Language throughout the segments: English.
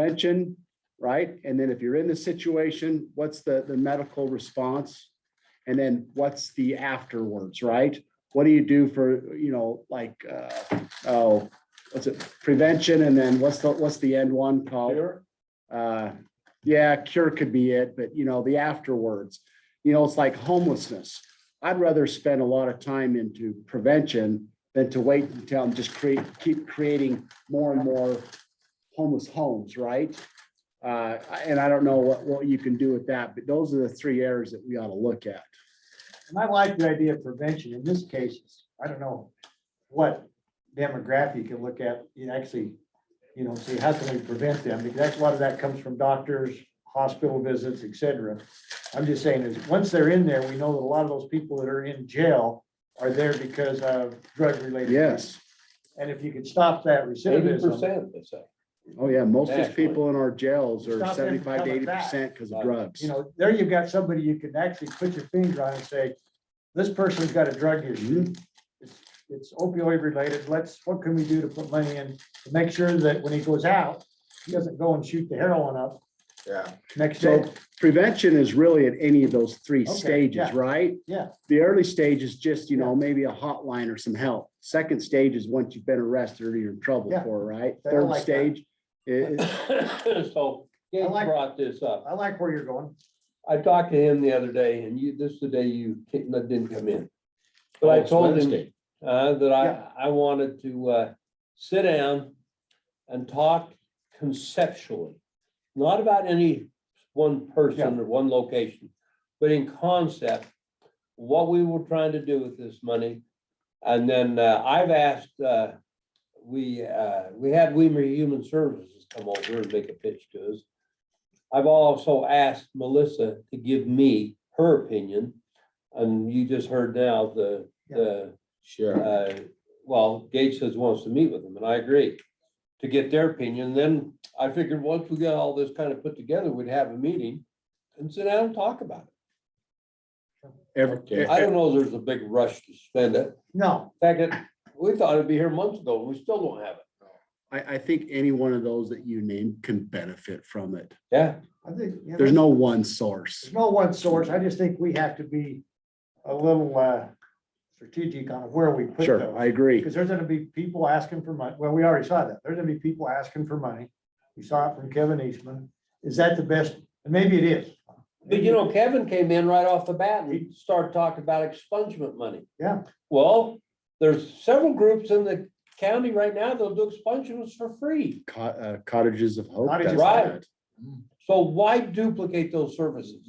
prevention, right? And then if you're in the situation, what's the, the medical response? And then what's the afterwards, right? What do you do for, you know, like, uh, oh, what's it, prevention, and then what's the, what's the end one called? Uh, yeah, cure could be it, but you know, the afterwards, you know, it's like homelessness. I'd rather spend a lot of time into prevention than to wait until I'm just create, keep creating more and more homeless homes, right? Uh, and I don't know what, what you can do with that, but those are the three areas that we ought to look at. And I like the idea of prevention. In this case, I don't know what demographic you can look at, you actually, you know, see how can we prevent them? Because that's a lot of that comes from doctors, hospital visits, et cetera. I'm just saying is, once they're in there, we know that a lot of those people that are in jail are there because of drug related. Yes. And if you could stop that Eighty recidivism, percent, they say. Oh, yeah. Most of these Actually. people in our jails are Stop them from seventy-five to coming eighty back. percent because of Right. drugs. you know, there you've got somebody you can actually put your finger on and say, this person's got a drug issue. Mhm. it's, it's opioid related, let's, what can we do to put money in to make sure that when he goes out, he doesn't go and shoot the heroin up Yeah. next So day. prevention is really at any of those three Okay, stages, yeah. right? Yeah. The early stage is just, you know, maybe a hotline or some help. Second stage is once you've been arrested or you're in trouble Yeah. for, right? I Third like that. stage is, So I Gates like- brought this up. I like where you're going. I talked to him the other day and you, this is the day you ca- that didn't come in. But I told him uh, that Yeah. I, I wanted to uh, sit down and talk conceptually, not about any one person or one location, but in concept, what we were trying to do with this money. And then uh, I've asked, uh, we, uh, we had Weimer Human Services come over and make a pitch to us. I've also asked Melissa to give me her opinion. And you just heard now the, the Sure. uh, well, Gates says wants to meet with them, and I agree, to get their opinion, then I figured once we got all this kind of put together, we'd have a meeting and sit down and talk about every, it. I don't know, if there's a big rush to spend it. No, In fact, it- we thought it'd be here months ago, and we still don't have it. I, I think any one of those that you named can benefit from it. Yeah, I think. you know, There's no one source. There's no one source. I just think we have to be a little, uh, strategic on where we put those. Sure, I agree. Because there's gonna be people asking for money. Well, we already saw that. There's gonna be people asking for money. We saw it from Kevin Eastman. Is that the best? And maybe it is. but you know, Kevin came in right off the bat and started talking about expungement money. Yeah. Well, there's several groups in the county right now that'll do expungements for free, Co- uh, Cottages of hope. Cottages of that's Hope. it. so why duplicate those services?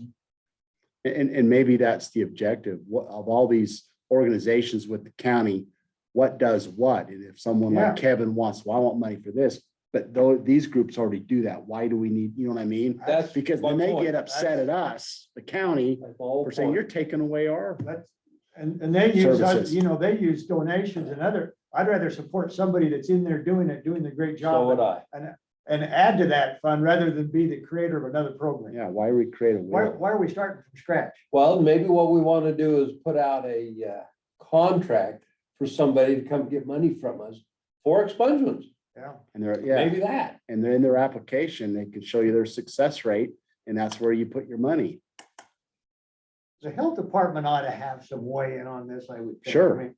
And, and maybe that's the objective What- of all these organizations with the county. What does what? And if someone like Kevin wants, well, I want money for this, but though these groups already do that, why do we need, you know what I mean? That's Because my then they point. get upset at us, the county, That's my whole for saying point. you're taking away our, That's, and, and they use, other- Services. you know, they use donations and other, I'd rather support somebody that's in there doing it, doing the great So would job. I. And add to that fund rather than be the creator of another program. yeah, why we create a Why, wheel? why are we starting from scratch? Well, maybe what we want to do is put out a uh, contract for somebody to come get money from us for expungements. Yeah. And they're, yeah, Maybe that. and they're in their application, they can show you their success rate, and that's where you put your money. The health department ought to have some way in on this, I would. think. Sure. I mean,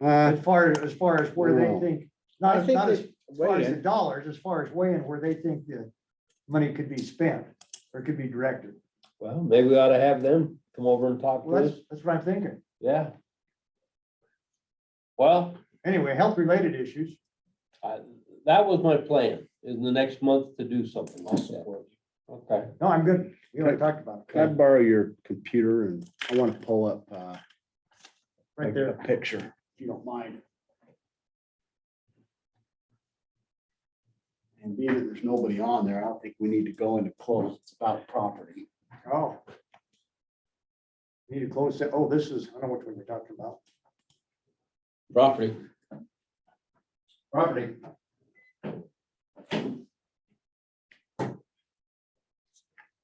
Uh, As far, as as far as where No. they think, I not, think not as that- as far as the dollars, as far as weighing where they think the money could be spent or could be directed. Well, maybe we ought to have them come over and talk to Well, us. that's, that's what I'm thinking. Yeah. Well, Anyway, health related issues. I- that was my plan, in the next month to do something like that. Okay. No, I'm good. We already talked about it can I borrow your computer and I want to pull up, uh, right a- a there. Picture, if you don't mind. And being that there's nobody on there, I don't think we need to go into close. It's about property. Oh. Need to close it. Oh, this is, I don't know which one you're talking about. Property. Property.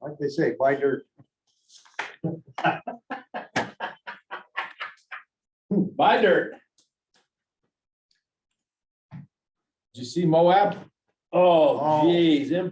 Like they say, buy dirt. Buy dirt. Did you see Oh. Moab? Oh Oh. geez, them